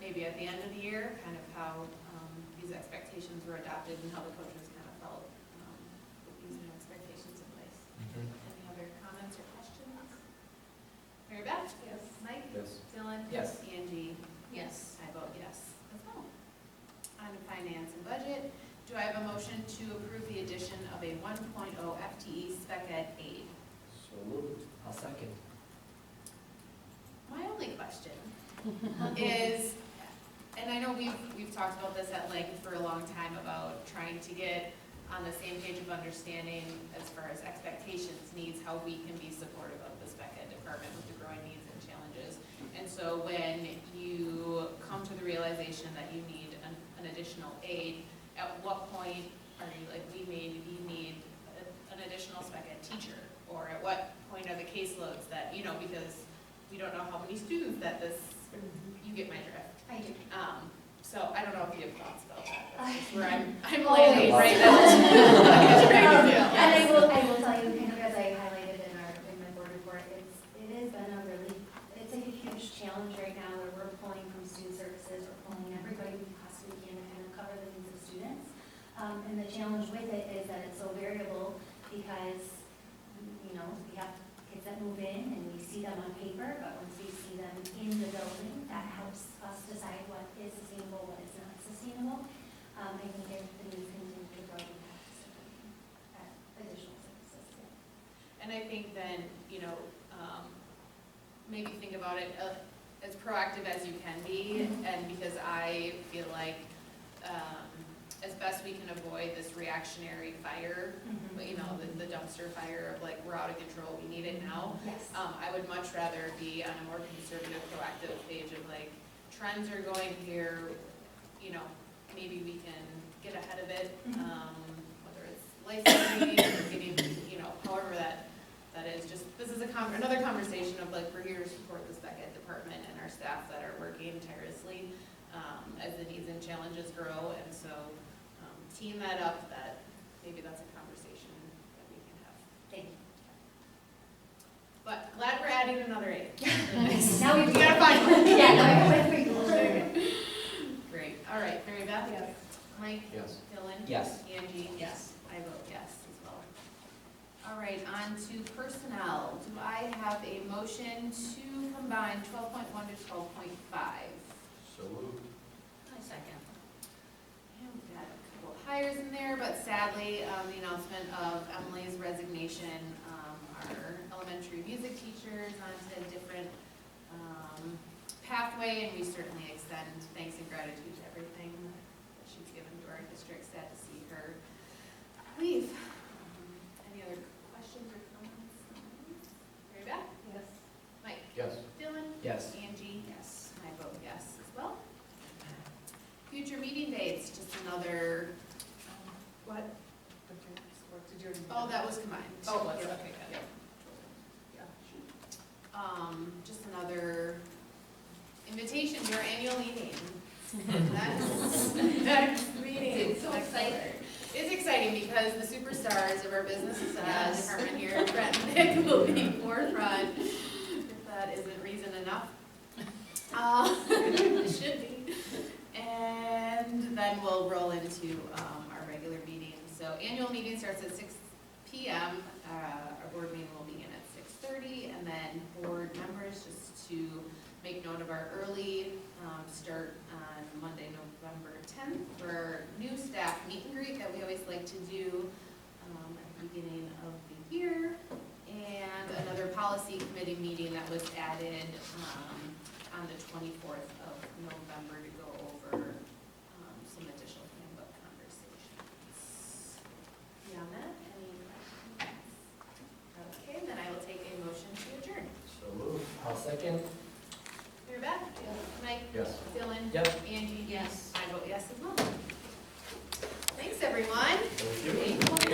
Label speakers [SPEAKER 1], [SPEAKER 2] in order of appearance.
[SPEAKER 1] maybe at the end of the year, kind of how um, these expectations were adopted and how the coaches kind of felt um, with these new expectations in place.
[SPEAKER 2] Okay.
[SPEAKER 1] Any other comments or questions? Mary Beth? Yes. Mike?
[SPEAKER 2] Yes.
[SPEAKER 1] Dylan?
[SPEAKER 2] Yes.
[SPEAKER 1] Angie? Yes. I vote yes as well. On to finance and budget, do I have a motion to approve the addition of a 1.0 FTE E spec ed aide?
[SPEAKER 2] So moved. I'll second.
[SPEAKER 1] My only question is, and I know we've, we've talked about this at length for a long time about trying to get on the same page of understanding as far as expectations, needs, how we can be supportive of the spec ed department with the growing needs and challenges. And so when you come to the realization that you need an, an additional aid, at what point are you like, we may, we need a- an additional spec ed teacher? Or at what point are the caseloads that, you know, because we don't know how many students that this, you get my drift.
[SPEAKER 3] I do.
[SPEAKER 1] Um, so I don't know if you have thoughts about that, that's just where I'm, I'm
[SPEAKER 3] Oh,
[SPEAKER 1] landing
[SPEAKER 2] yeah.
[SPEAKER 1] right now. That's great.
[SPEAKER 3] Um, And I
[SPEAKER 1] Yes.
[SPEAKER 3] will, I will tell you, kind of as I highlighted in our, in my board report, it's, it has been a really, it's a huge challenge right now where we're pulling from student services, we're pulling everybody we possibly can to kind of cover the needs of students. Um, and the challenge with it is that it's so variable because, you know, we have kids that move in and we see them on paper, but once we see them in the building, that helps us decide what is sustainable, what is not sustainable. Um, I think if the needs continue to grow, we have to start looking at uh, additional services. yeah.
[SPEAKER 1] And I think then, you know, um, maybe think about it uh, as proactive as you can be, and because I feel like, um, as best we can avoid this reactionary fire, but, you know, the- the dumpster fire of like, we're out of control, we need it now.
[SPEAKER 3] Yes.
[SPEAKER 1] Um, I would much rather be on a more conservative, proactive page of like, trends are going here, you know, maybe we can get ahead of it, um, whether it's licensing or getting, you know, however that, that is, just, this is a con, another conversation of like, we're here to support the spec ed department and our staff that are working tirelessly, um, as the needs and challenges grow, and so, um, team that up, that, maybe that's a conversation that we can have.
[SPEAKER 3] Thank you.
[SPEAKER 1] But glad we're adding another eight.
[SPEAKER 3] Now we
[SPEAKER 1] We gotta find one.
[SPEAKER 3] Yeah, now I have three goals.
[SPEAKER 1] Great, all right, Mary Beth? Yes. Mike?
[SPEAKER 2] Yes.
[SPEAKER 1] Dylan?
[SPEAKER 2] Yes.
[SPEAKER 1] Angie? Yes. I vote yes as well. All right, on to personnel. Do I have a motion to combine twelve point one to twelve point five?
[SPEAKER 2] So moved.
[SPEAKER 1] I second. And we've got a couple hires in there, but sadly, um, the announcement of Emily's resignation, um, our elementary music teachers onto a different, um, pathway, and we certainly extend thanks and gratitude to everything that she's given to our district. Sad to see her leave. Um, Any other questions or comments? Mary Beth? Yes. Mike?
[SPEAKER 2] Yes.
[SPEAKER 1] Dylan?
[SPEAKER 2] Yes.
[SPEAKER 1] Angie? Yes. I vote yes as well. Future meeting dates, just another, um,
[SPEAKER 4] What? Did you already?
[SPEAKER 1] oh, that was combined.
[SPEAKER 4] Oh, was it?
[SPEAKER 1] Yeah.
[SPEAKER 4] Okay, good.
[SPEAKER 1] Yeah.
[SPEAKER 4] Yeah.
[SPEAKER 1] Um, just another invitation to our annual meeting. Next- Next meeting.
[SPEAKER 4] It's so
[SPEAKER 1] Next
[SPEAKER 4] exciting.
[SPEAKER 1] year. It's exciting because the superstars of our business uh, department here, Brett and Nick, will be forefront. If that isn't reason enough. Uh, it should be. And then we'll roll into um, our regular meeting. So annual meeting starts at six PM. Uh, Our board meeting will begin at six thirty, and then board members, just to make note of our early um, start on Monday, November tenth, for our new staff meet and greet that we always like to do um, at the beginning of the year. And another policy committee meeting that was added um, on the twenty-fourth of November to go over um, some additional handbook conversations. Beyond that, any questions? Okay, then I will take a motion to adjourn.
[SPEAKER 2] So moved. I'll second.
[SPEAKER 1] Mary Beth? Mike?
[SPEAKER 2] Yes.
[SPEAKER 1] Dylan?
[SPEAKER 2] Yep.
[SPEAKER 1] Angie? Yes. I vote yes as well. Thanks, everyone.
[SPEAKER 2] Thank you.
[SPEAKER 1] Thank you.